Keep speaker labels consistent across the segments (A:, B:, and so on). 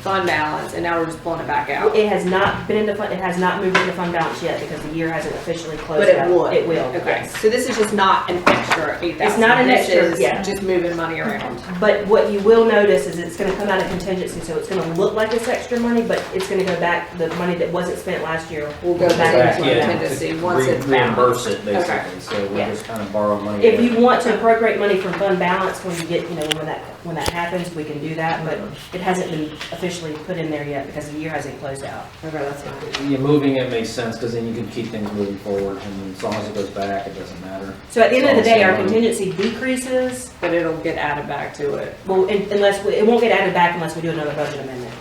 A: fund balance, and now we're just pulling it back out.
B: It has not been in the fund, it has not moved into fund balance yet because the year hasn't officially closed
A: But it
B: out.
A: would.
B: It will,
A: Okay,
B: yes.
A: so this is just not an extra eight thousand.
B: It's not an extra, yeah.
A: Just moving money around.
B: But what you will notice is it's gonna come out of contingency, so it's gonna look like it's extra money, but it's gonna go back, the money that wasn't spent last year
A: Oh,
B: will go back
A: back,
B: into
A: yeah.
B: it.
A: contingency
C: to
A: once
C: re-
A: it's
C: Reimburse it
A: balanced.
C: basically, so we're
B: Yeah.
C: just kind of borrowing money.
B: If you want to appropriate money from fund balance when you get, you know, when that, when that happens, we can do that, but it hasn't been officially put in there yet because the year hasn't closed out.
A: Okay, that's fine.
C: Yeah, moving it makes sense, because then you can keep things moving forward, and as long as it goes back, it doesn't matter.
B: So at the end of the day, our
C: Awesome.
B: contingency decreases,
A: But it'll get added back to it.
B: well, un- unless, we- it won't get added back unless we do another budget amendment.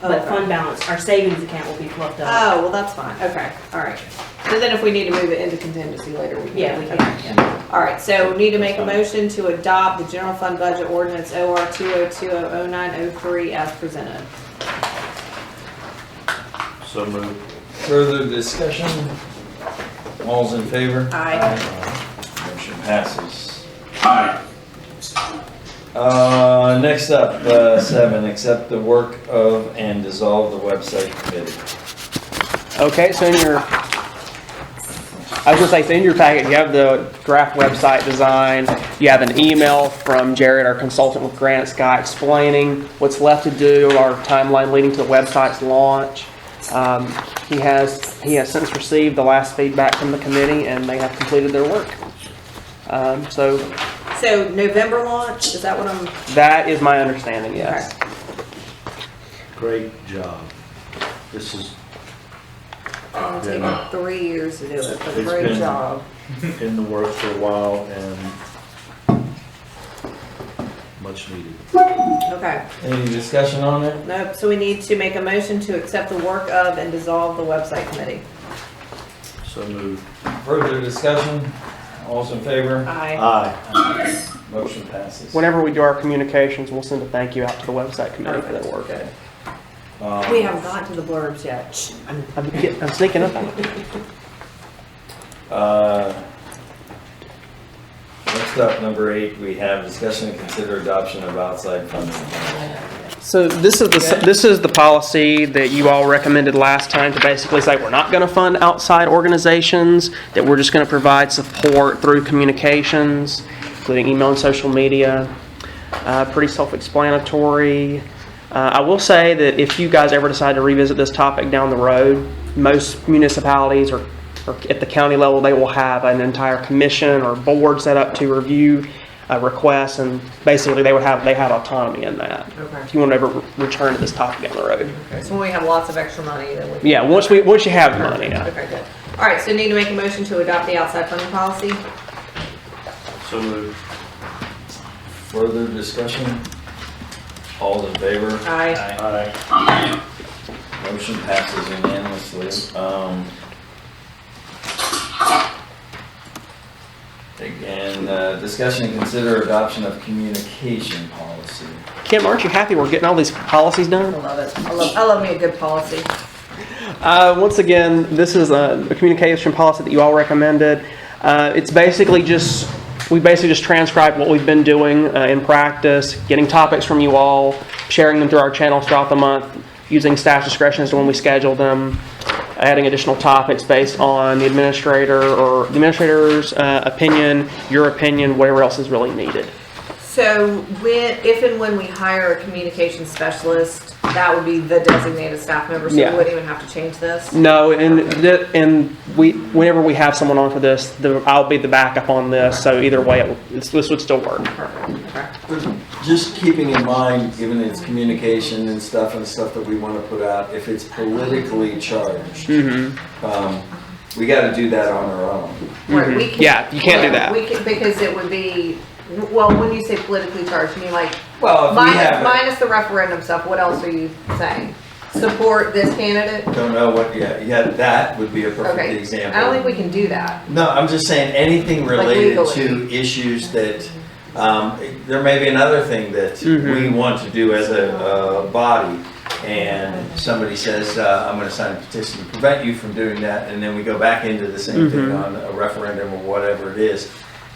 B: But
A: Okay.
B: fund balance, our savings account will be fluffed up.
A: Oh, well, that's fine, okay, all right. So then if we need to move it into contingency later, we can.
B: Yeah, we
A: Okay.
B: can.
A: All right, so need to make a motion to adopt the general fund budget ordinance OR two oh two oh oh nine oh three as presented.
D: So moved.
E: Further discussion? All's in favor?
A: Aye.
E: Motion passes. Uh, next up, uh, seven, accept the work of and dissolve the website committee.
F: Okay, so in your, I was gonna say, so in your packet, you have the draft website design, you have an email from Jared, our consultant with Granite Sky, explaining what's left to do, our timeline leading to the website's launch. Um, He has, he has since received the last feedback from the committee, and they have completed their work. Um, So
A: So November launch, is that what I'm,
F: that is my understanding, yes.
D: Great job. This is,
A: it's taken three years to do it, but
D: It's
A: great
D: been-
A: job.
D: in the works for a while and much needed.
A: Okay,
E: Any discussion on it?
A: nope, so we need to make a motion to accept the work of and dissolve the website committee.
D: So moved.
E: Further discussion? All's in favor?
A: Aye.
D: Aye.
E: Motion passes.
F: Whenever we do our communications, we'll send a thank you out to the website committee for their work.
E: Okay.
A: We
E: Um,
A: haven't gotten to the blurbs yet. Shh. I'm-
F: I'm getting- I'm sneaking up on you.
E: Uh, Next up, number eight, we have discussion and consider adoption of outside funding.
F: So this is the, this is the policy that you all recommended last time to basically say, we're not gonna fund outside organizations, that we're just gonna provide support through communications, including email and social media. Uh, pretty self-explanatory. Uh, I will say that if you guys ever decide to revisit this topic down the road, most municipalities or, or at the county level, they will have an entire commission or board set up to review uh, requests, and basically they would have, they have autonomy in that
A: Okay.
F: if you want to ever return to this topic down the road.
A: So when we have lots of extra money, then we can.
F: Yeah, once we, once you have the money, yeah.
A: Okay, good. All right, so need to make a motion to adopt the outside funding policy?
D: So moved.
E: Further discussion? All's in favor?
A: Aye.
D: Aye.
E: Motion passes unanimously. Um, And uh, discussion and consider adoption of communication policy.
F: Kim, aren't you happy we're getting all these policies
A: I
F: done?
A: love it. I love, I love me a good policy.
F: Uh, once again, this is a, a communication policy that you all recommended. Uh, it's basically just, we basically just transcribed what we've been doing uh, in practice, getting topics from you all, sharing them through our channels throughout the month, using staff discretion as to when we schedule them, adding additional topics based on the administrator or the administrator's uh, opinion, your opinion, whatever else is really needed.
A: So when, if and when we hire a communication specialist, that would be the designated staff member, so we
F: Yeah.
A: wouldn't even have to change this?
F: No, and th- and we whenever we have someone on for this, the, I'll be the backup on this. So either way, it, will- this, this would still work.
A: Perfect, okay.
E: Just keeping in mind, given its communication and stuff and stuff that we want to put out, if it's politically charged,
F: Mm-hmm.
E: um, we got to do that on our own.
A: Right, we can.
F: Yeah, you can't do that.
A: We can, because it would be, well, when you say politically charged, you mean like
E: Well, if we
A: minus,
E: have,
A: minus the referendum stuff, what else are you saying? Support this candidate?
E: don't know what, yeah, yeah, that would be a perfect
A: Okay, I don't think
E: example.
A: we can do that.
E: No, I'm just saying, anything related to
A: legally.
E: issues that, um, there may be another thing that we want to do as a, uh body. And somebody says, uh, I'm gonna sign a petition to prevent you from doing that, and then we go back into the same thing on a referendum or whatever it is.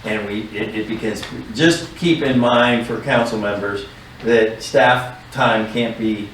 E: And we, it, it begins, just keep in mind for council members that staff time can't be